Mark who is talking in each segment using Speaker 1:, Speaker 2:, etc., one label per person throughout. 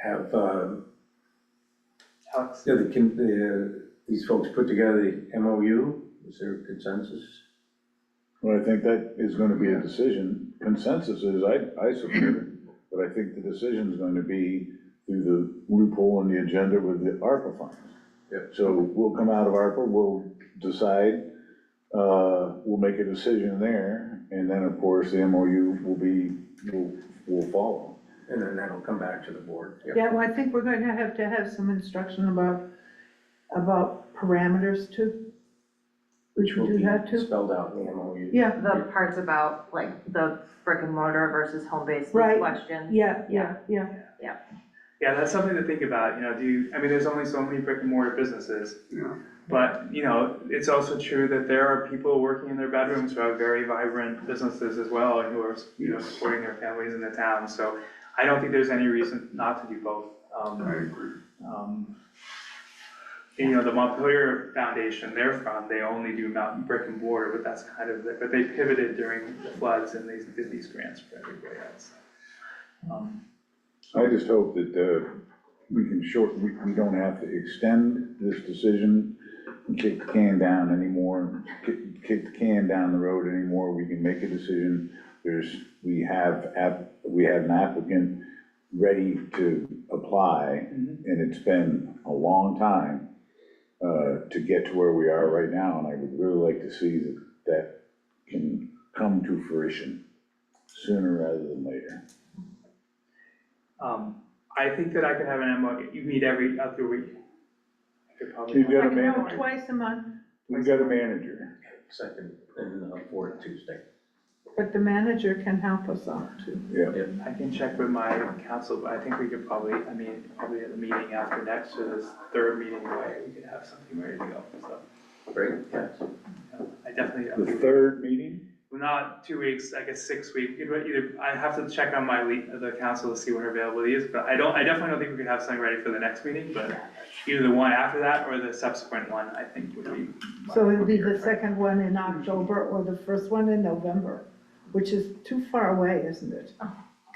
Speaker 1: have, um,
Speaker 2: Alex,
Speaker 1: yeah, the, con- the, uh, these folks put together the MOU, is there consensus?
Speaker 3: Well, I think that is gonna be a decision. Consensus is, I, I support it, but I think the decision's gonna be through the loophole in the agenda with the ARPA funds.
Speaker 1: Yep.
Speaker 3: So we'll come out of ARPA, we'll decide, uh, we'll make a decision there, and then, of course, the MOU will be, will, will follow.
Speaker 1: And then that'll come back to the board.
Speaker 2: yeah, well, I think we're going to have to have some instruction about, about parameters too.
Speaker 1: Which will
Speaker 2: Do
Speaker 1: be
Speaker 2: that too?
Speaker 1: spelled out in the MOU.
Speaker 2: Yeah,
Speaker 4: The parts about like the brick and mortar versus home-based
Speaker 2: Right.
Speaker 4: question.
Speaker 2: yeah, yeah, yeah,
Speaker 5: Yeah, that's something to think about, you know, do you, I mean, there's only so many brick and mortar businesses.
Speaker 6: Yeah.
Speaker 5: But, you know, it's also true that there are people working in their bedrooms who have very vibrant businesses as well, and who are, you know,
Speaker 6: Yes.
Speaker 5: supporting their families in the town, so I don't think there's any reason not to do both.
Speaker 6: I
Speaker 5: Um,
Speaker 6: agree.
Speaker 5: um, You know, the Montpelier Foundation, their fund, they only do mountain brick and mortar, but that's kind of, the- but they pivoted during the floods and these, did these grants for everybody else. Um,
Speaker 3: I just hope that, uh, we can short, we, we don't have to extend this decision and kick the can down anymore, kick, kick the can down the road anymore, we can make a decision. There's, we have app, we have an applicant ready to apply,
Speaker 5: Mhm.
Speaker 3: and it's been a long time, uh, to get to where we are right now, and I would really like to see that, that can come to fruition sooner rather than later.
Speaker 5: Um, I think that I could have an MOU, you meet every other week. I could probably-
Speaker 3: You've got
Speaker 2: I
Speaker 3: a
Speaker 2: can have
Speaker 3: manager.
Speaker 2: it twice a month,
Speaker 3: We've got a manager.
Speaker 1: Second and uh, fourth Tuesday.
Speaker 2: but the manager can help us out too.
Speaker 5: I can check with my council, but I think we could probably, I mean, probably at the meeting after next, or this third meeting, right, we could have something ready to go, so.
Speaker 1: Great, yes.
Speaker 5: yeah, I definitely, I
Speaker 3: The
Speaker 5: mean,
Speaker 3: third meeting?
Speaker 5: well, not two weeks, I guess six weeks, you know, either, I have to check on my lead, the council to see when her availability is, but I don't, I definitely don't think we could have something ready for the next meeting, but either the one after that or the subsequent one, I think would be.
Speaker 2: So it'll be the second one in October or the first one in November, which is too far away, isn't it?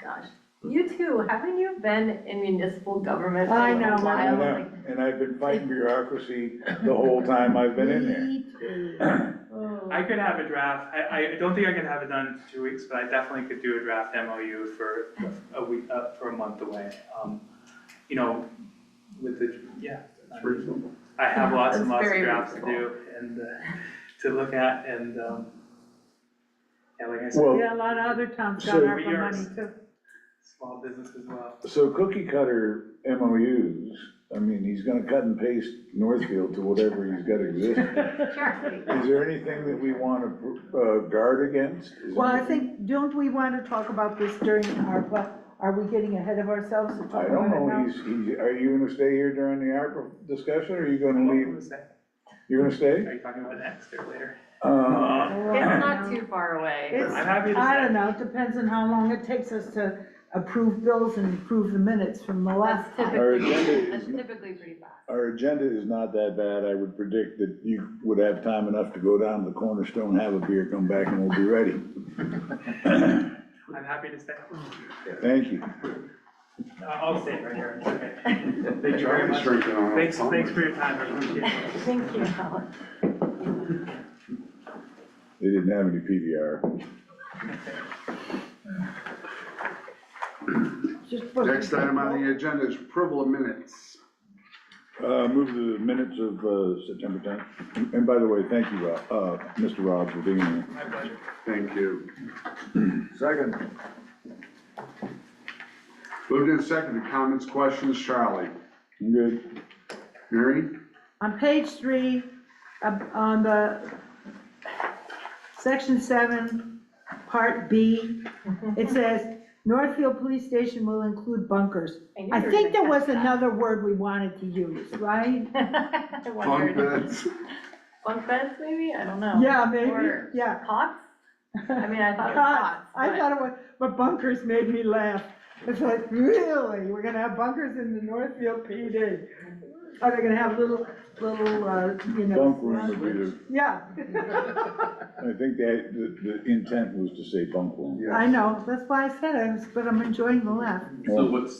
Speaker 4: Gosh, you too, haven't you been in municipal government for
Speaker 2: I
Speaker 4: a
Speaker 2: know,
Speaker 4: little
Speaker 2: I
Speaker 3: And
Speaker 4: while? Like,
Speaker 3: I- and I've been fighting bureaucracy the whole time I've been in there.
Speaker 2: Me too.
Speaker 5: I could have a draft, I, I don't think I can have it done in two weeks, but I definitely could do a draft MOU for a week, uh, for a month away. Um, You know, with the, yeah,
Speaker 6: It's reasonable.
Speaker 5: I have lots and
Speaker 4: That's
Speaker 5: lots of
Speaker 4: very
Speaker 5: drafts to
Speaker 4: reasonable.
Speaker 5: do and, uh, to look at and, um, yeah, like I said,
Speaker 3: Well,
Speaker 2: Yeah, a lot of other towns got
Speaker 3: So
Speaker 2: our
Speaker 5: we are-
Speaker 2: money too.
Speaker 5: small business as well.
Speaker 3: so cookie cutter MOUs, I mean, he's gonna cut and paste Northfield to whatever he's got existing.
Speaker 4: Sure.
Speaker 3: Is there anything that we wanna, uh, guard against? Is
Speaker 2: Well, I
Speaker 3: anything-
Speaker 2: think, don't we want to talk about this during ARPA? Are we getting ahead of ourselves to
Speaker 3: I
Speaker 2: talk about
Speaker 3: don't
Speaker 2: it now?
Speaker 3: know, he's, he, are you gonna stay here during the ARPA discussion, or are you gonna
Speaker 5: What
Speaker 3: leave?
Speaker 5: was that?
Speaker 3: You're gonna stay?
Speaker 5: Are you talking about next or later?
Speaker 3: Uh,
Speaker 2: Oh, I
Speaker 4: It's
Speaker 2: don't
Speaker 4: not
Speaker 2: know.
Speaker 4: too far away.
Speaker 2: It's-
Speaker 5: I'm happy to
Speaker 2: I don't
Speaker 5: say.
Speaker 2: know, it depends on how long it takes us to approve bills and approve the minutes from the last
Speaker 4: That's
Speaker 2: time.
Speaker 3: Our
Speaker 4: typically,
Speaker 3: agenda
Speaker 4: that's
Speaker 3: is-
Speaker 4: typically pretty fast.
Speaker 3: Our agenda is not that bad. I would predict that you would have time enough to go down to the cornerstone, have a beer, come back, and we'll be ready.
Speaker 5: I'm happy to stay.
Speaker 3: Thank you.
Speaker 5: Uh, I'll stay right here. Okay.
Speaker 6: They
Speaker 5: Thank you very much.
Speaker 6: drinking on.
Speaker 5: Thanks, thanks for your time, I appreciate it.
Speaker 4: Thank you, Alex.
Speaker 3: They didn't have any PVR.
Speaker 2: Just put-
Speaker 6: Next item on the agenda is approval of minutes.
Speaker 3: Uh, move the minutes of, uh, September tenth. And by the way, thank you, Rob- uh, Mr. Rob for being here.
Speaker 5: My pleasure.
Speaker 6: Thank you.
Speaker 3: Second.
Speaker 6: Moved in second, comments, questions, Charlie?
Speaker 3: Good.
Speaker 6: Mary?
Speaker 2: On page three, up on the, section seven, part B,
Speaker 4: Mm-hmm.
Speaker 2: it says, Northfield Police Station will include bunkers.
Speaker 4: knew
Speaker 2: I
Speaker 4: you were
Speaker 2: think there
Speaker 4: gonna
Speaker 2: was
Speaker 4: catch that.
Speaker 2: another word we wanted to use, right?
Speaker 4: I
Speaker 6: Fun
Speaker 4: wondered.
Speaker 6: beds.
Speaker 4: Bunk beds, maybe? I don't know.
Speaker 2: Yeah, maybe,
Speaker 4: Or-
Speaker 2: yeah.
Speaker 4: Cots? I mean, I thought it was
Speaker 2: Cots,
Speaker 4: cots.
Speaker 2: I
Speaker 4: but-
Speaker 2: thought it was, but bunkers made me laugh. It's like, really? We're gonna have bunkers in the Northfield PD? Are they gonna have little, little, uh, you know?
Speaker 3: Bunk room would be the,
Speaker 2: Yeah,
Speaker 3: I think that, the, the intent was to say bunk room.
Speaker 2: I know, that's why I said it, but I'm enjoying the laugh.
Speaker 3: So
Speaker 7: what's